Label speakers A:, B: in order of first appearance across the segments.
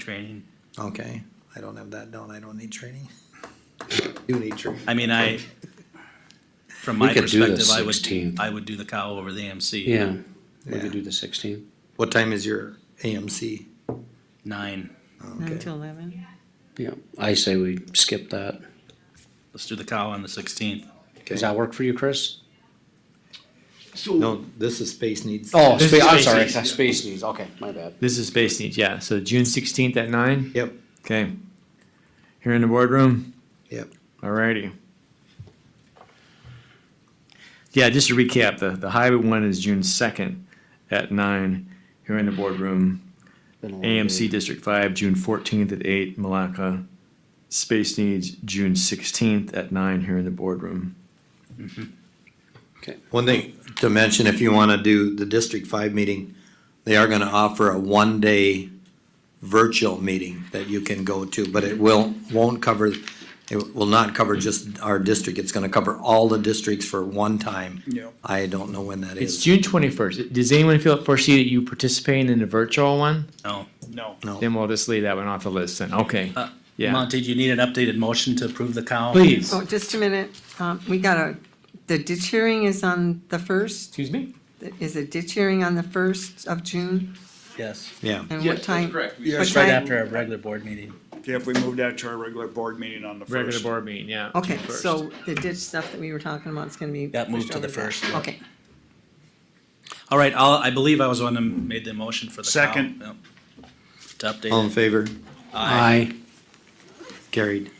A: training.
B: Okay, I don't have that down, I don't need training. You need training.
A: I mean, I, from my
C: We could do the
A: perspective, I would,
C: 16th.
A: I would do the cow over the AMC.
C: Yeah, we
B: Yeah.
C: could do the sixteenth.
B: What time is your AMC?
A: Nine.
D: Nine
B: Okay,
D: to eleven?
C: Yeah, I say we skip that.
A: Let's do the cow on the sixteenth.
C: Does that work for you, Chris?
B: no, this is space needs.
C: Oh,
E: This
C: spa-
E: is
C: I'm
E: space
C: sorry,
E: needs, yeah.
C: space needs, okay, my bad.
E: This is Space Needs, yeah. So June 16th at 9.
B: Yep,
E: Okay. Here in the boardroom.
B: yep,
E: Alrighty. Yeah, just to recap, the, the highway one is June 2nd at 9 here in the boardroom.
C: Been a long
E: AMC
C: day.
E: District 5, June 14th at 8, Malacca. Space Needs, June 16th at 9 here in the boardroom.
B: one thing to mention, if you wanna do the District Five meeting, they are gonna offer a one-day virtual meeting that you can go to, but it will, won't cover, it will not cover just our district, it's gonna cover all the districts for one time.
F: Yep.
B: I don't know when that
E: It's
B: is.
E: June 21st. Does anyone feel foresee that you participating in the virtual one?
A: No.
F: No.
B: No.
E: Then we'll just leave that one off the list then. Okay.
A: Uh,
E: Yeah.
A: Monty, do you need an updated motion to approve the cow?
E: Please.
D: Oh, just a minute, um, we gotta, the ditch hearing is on the first,
E: Excuse me?
D: is it ditch hearing on the first of June?
A: Yes.
B: Yeah,
D: And
E: Yeah,
D: what
E: that's
D: time?
F: correct.
D: what
A: It's right
D: time-
A: after our regular board meeting.
F: Yep, we moved out to our regular board meeting on the first.
E: Regular board meeting, yeah.
D: Okay,
E: June 1st.
D: so the ditch stuff that we were talking about is gonna be.
A: That moved
D: pushed
A: to the
D: over back.
A: first, yeah.
D: Okay,
A: All right, I'll, I believe I was the one who made the motion for the cow.
F: Second.
A: Yep. To
B: all
A: update
C: Um,
B: in
A: it.
B: favor?
C: Aye,
B: Carried.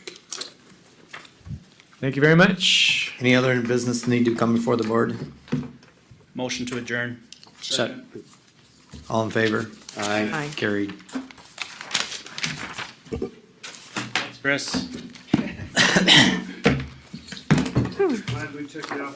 E: Thank you very much.
B: Any other business need to come before the board?
A: Motion to adjourn.
C: Se-
B: All in favor?
C: aye.
D: aye.
B: Carried.
A: Chris?
F: Glad we took it off